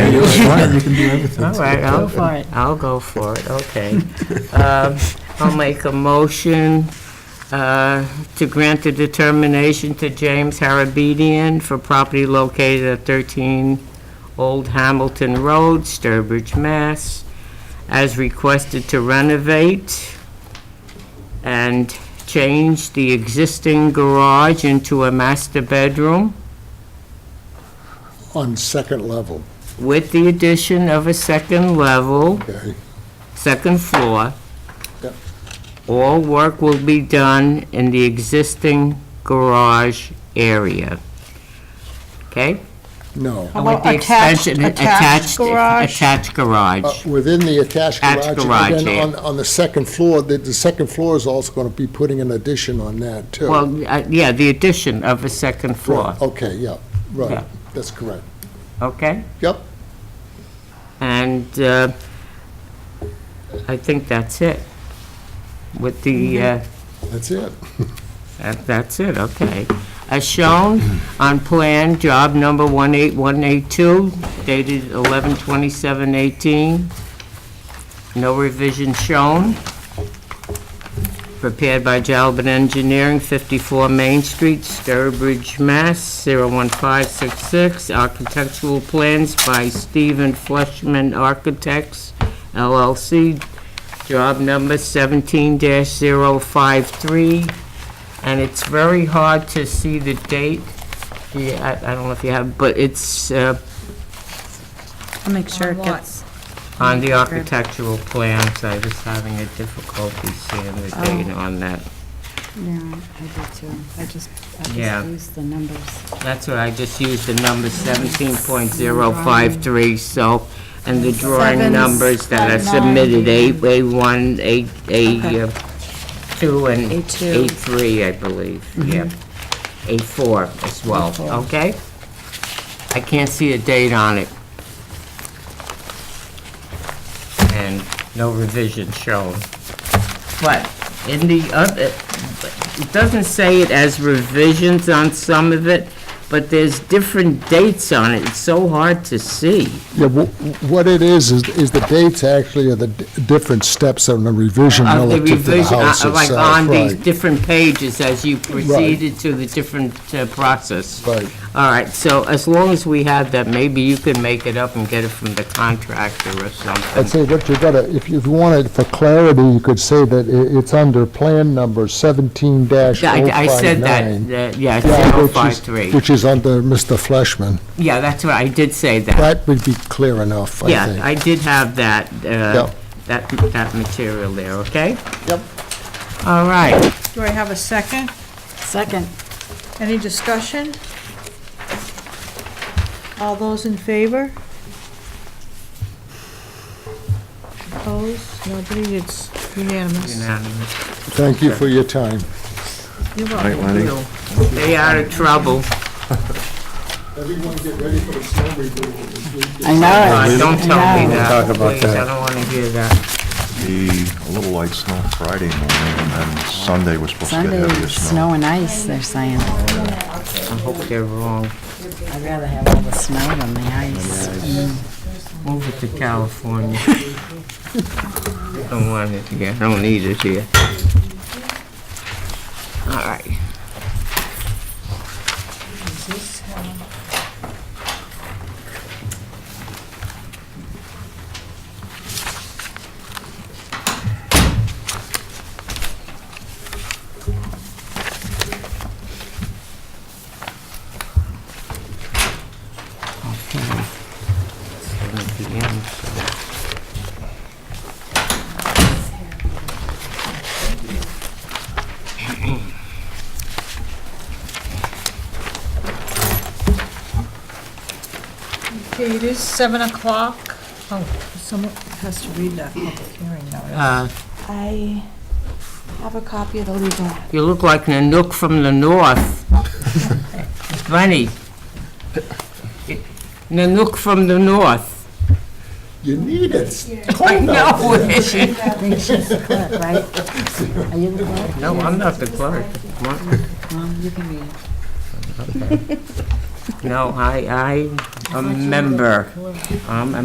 required. You can do everything. All right, I'll go for it, I'll go for it, okay. Um, I'll make a motion uh, to grant the determination to James Harabedian for property located at 13 Old Hamilton Road, Sturbridge, Mass, as requested to renovate and change the existing garage into a master bedroom on second level, with the addition of a second level. okay? second floor. Yep. All work will be done in the existing garage area. Okay? No. How With about the attached, expansion- attached garage? Attached Uh, garage. Within the attached Attached garage. garage, And then yeah. on, on the second floor, the, the second floor is also going to be putting an addition on that, too. Well, uh, yeah, the addition of a second floor, Right, Okay, yeah, oh. Yeah. right, that's correct. okay? Yep, And uh, I think that's it. With the, Mm-hmm. uh, that's it. That- That's it, okay. As shown on plan, job number 18182, dated 11/27/18. No revision shown. Prepared by Jalbert Engineering, 54 Main Street, Sturbridge, Mass. 01566. Architectural plans by Stephen Fleshman Architects, LLC. Job number 17-053 and it's very hard to see the date. Yeah, I, I don't know if you have, but it's uh, I'll make sure On it what? gets, on the Okay. architectural plans. I was having a difficulty seeing the Oh. date on that. Yeah, I do too. I just, I Yeah. just use the numbers. That's what I just used the number 17.053, so, and the drawing Seven, numbers that are seven, submitted, nine. eight A1, eight A, uh, 2 and A2. A3, I believe, yeah. A4 as well, okay? I can't see a date on it. And no revision shown. But in the other, it doesn't say it as revisions on some of it, but there's different dates on it. It's so hard to see. Yeah, wh- what it is, is, is the dates actually are the d- different steps on the revision Of the relative to the revision, house uh, itself. Like on these right, different pages as you proceeded to the different uh, process. Right. All right, so as long as we have that, maybe you can make it up and get it from the contractor or I'd something. say what you gotta, if you wanted, for clarity, you could say that i it's under plan number seventeen dash oh Yeah, I I said that, that- yeah, 053. Which is under Mr. Fleshman. Yeah, that's right, I did say that. That would be clear enough, I Yeah, think. I did have that, uh, Yeah. that, that material there, okay? Yep. All right, do I have a second? Second. Any discussion? All those in favor? Opposed? Nobody? It's unanimous. unanimous. Thank you for your time. You're Right, welcome. Lenny? Stay out of trouble. Everyone get ready for the snow removal. I know Uh, Don't tell me that. No. We'll talk about Please, I that. don't want to hear that. Be a little light snow Friday morning, and then Sunday was supposed to get Sunday, heavier snow snow. and ice, they're saying. I hope they're wrong. I'd rather have all the snow than the ice. Move it to California. Don't want it here, don't need it here. All right. Okay. Seven PM, so- Okay, it is seven o'clock. Oh, someone has to read that public hearing now. Uh, I have a copy of the legal ad. You look like Nanook from the north. Funny. Nanook from the north. You need it. I know it. I think she's the clerk, right? Are you the clerk? No, I'm not the clerk. Well, you can read it. No, I, I, a member. I'm a